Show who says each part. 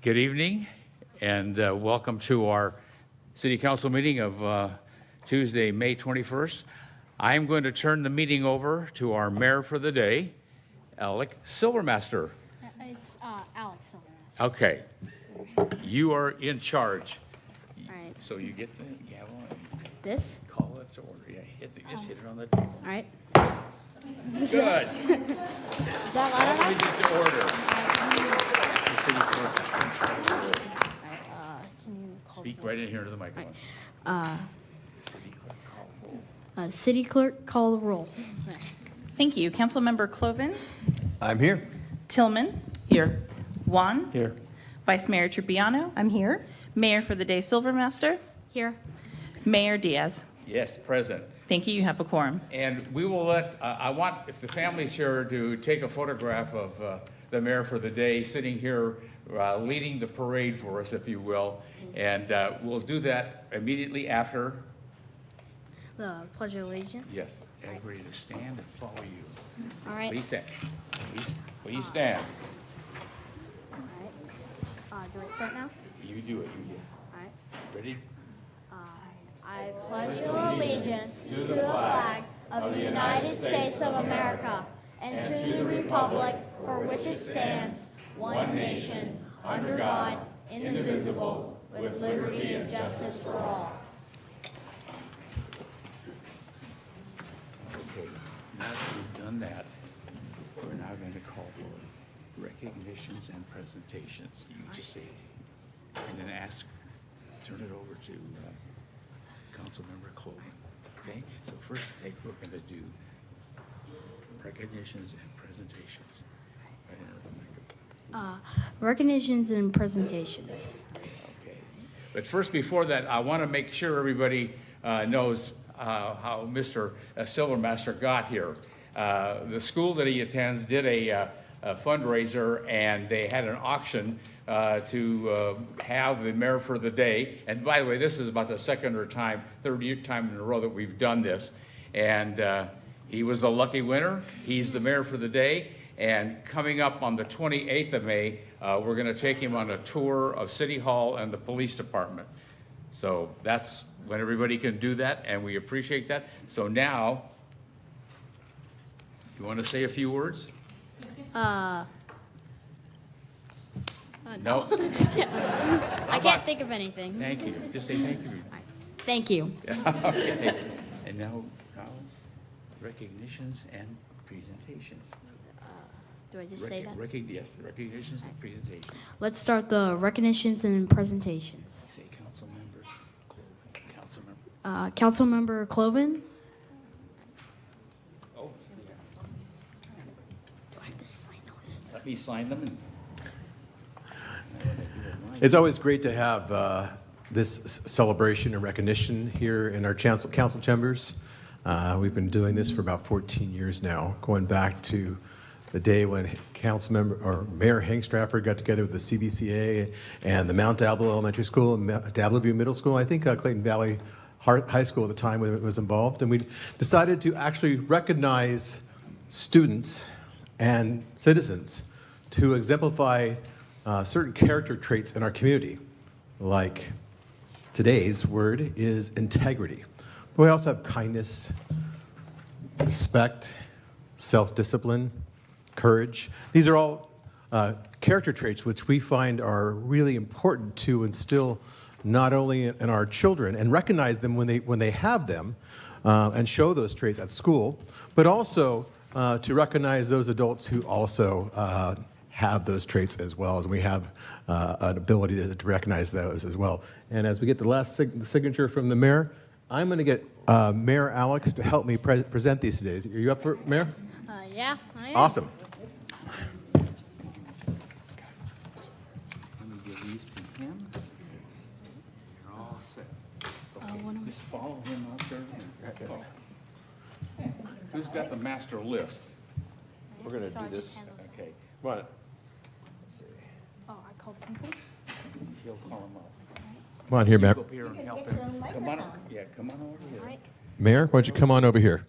Speaker 1: Good evening, and uh, welcome to our city council meeting of uh, Tuesday, May 21st. I'm going to turn the meeting over to our mayor for the day, Alec Silvermaster.
Speaker 2: It's uh, Alex Silvermaster.
Speaker 1: Okay, you are in charge,
Speaker 2: All right,
Speaker 1: so you get the gavel and
Speaker 2: this,
Speaker 1: call it to order. Yeah, hit the- Just hit it on the table.
Speaker 2: all right.
Speaker 1: Good.
Speaker 2: Is that loud
Speaker 1: Call
Speaker 2: enough?
Speaker 1: it to order. That's the city clerk.
Speaker 2: All right, uh, Can you call?
Speaker 1: Speak right in here to the microphone. City clerk, call roll.
Speaker 2: Uh, City clerk, call the roll.
Speaker 3: Thank you. Councilmember Cloven,
Speaker 4: I'm here.
Speaker 3: Tillman. Here. Juan.
Speaker 5: Here.
Speaker 3: Vice Mayor Triviano.
Speaker 6: I'm here.
Speaker 3: Mayor for the day Silvermaster.
Speaker 2: Here,
Speaker 3: Mayor Diaz.
Speaker 1: Yes, present.
Speaker 3: Thank you. You have a quorum.
Speaker 1: And we will let, uh, I want, if the family's here, to take a photograph of uh, the mayor for the day, sitting here uh, leading the parade for us, if you will. And uh, we'll do that immediately after.
Speaker 2: the pledge of allegiance.
Speaker 1: Yes, everybody to stand and follow you.
Speaker 2: All right.
Speaker 1: Please stand. Please, please stand.
Speaker 2: all right. Uh, Do I start now?
Speaker 1: You do it, you do
Speaker 2: All right.
Speaker 1: it. Ready?
Speaker 2: I pledge allegiance to the flag of the United States of America and to the republic for which it stands, one nation, under God, indivisible, with liberty and justice for all.
Speaker 1: Okay, now that we've done that, we're now going to call for recognitions and presentations. You just say, and then ask, turn it over to uh, Councilmember Colvin, okay? So first thing, we're going to do recognitions and presentations. Right into the microphone.
Speaker 2: Recognitions and presentations.
Speaker 1: Okay. But first, before that, I want to make sure everybody uh, knows uh, how Mr. Silvermaster got here. Uh, The school that he attends did a uh, a fundraiser, and they had an auction uh, to uh, have the mayor for the day. And by the way, this is about the second or time, third year time in a row that we've done this. And uh, he was the lucky winner. He's the mayor for the day. And coming up on the 28th of May, uh, we're going to take him on a tour of City Hall and the Police Department. So that's when everybody can do that, and we appreciate that. So now, you want to say a few words?
Speaker 2: uh,
Speaker 1: Uh. No,
Speaker 2: I can't think of anything.
Speaker 1: thank you. Just say thank you.
Speaker 2: Thank you.
Speaker 1: Okay. And now, now recognitions and presentations.
Speaker 2: Do I just say that?
Speaker 1: Recog- recog- Yes, recognitions and presentations.
Speaker 2: Let's start the recognitions and presentations.
Speaker 1: Say Councilmember Cloven, Councilmember.
Speaker 2: Uh, Councilmember Cloven?
Speaker 1: Oh,
Speaker 2: Do I have to sign those?
Speaker 1: let me sign them. and-
Speaker 4: It's always great to have uh, this s- celebration and recognition here in our chancel- council chambers. Uh, We've been doing this for about 14 years now, going back to the day when council member, or Mayor Hank Stratford got together with the CBCA and the Mount Diablo Elementary School and Ma- Diablo View Middle School, I think uh, Clayton Valley Har- High School at the time when it was involved. And we decided to actually recognize students and citizens to exemplify uh, certain character traits in our community, like today's word is integrity. But we also have kindness, respect, self discipline, courage. These are all uh, character traits which we find are really important to instill not only in, in our children and recognize them when they, when they have them uh, and show those traits at school, but also uh, to recognize those adults who also uh, have those traits as well as we have uh, an ability to, to recognize those as well. And as we get the last sig- signature from the mayor, I'm going to get uh, Mayor Alex to help me pre- present these today. Are you up for it, Mayor?
Speaker 2: Uh, yeah, I am.
Speaker 4: Awesome.
Speaker 1: Let me give these to him. You're all set. Okay, just follow him out there. and- oh. Who's got the master list?
Speaker 4: We're going
Speaker 2: So I just hand those-
Speaker 1: Okay,
Speaker 4: Right.
Speaker 2: Oh, I called people?
Speaker 1: he'll call him up.
Speaker 4: Come on here,
Speaker 1: You
Speaker 4: Mayor.
Speaker 1: Go up here and help him. Come on, yeah, come on over
Speaker 2: All
Speaker 1: here.
Speaker 2: right.
Speaker 4: Mayor, why don't you come on over here?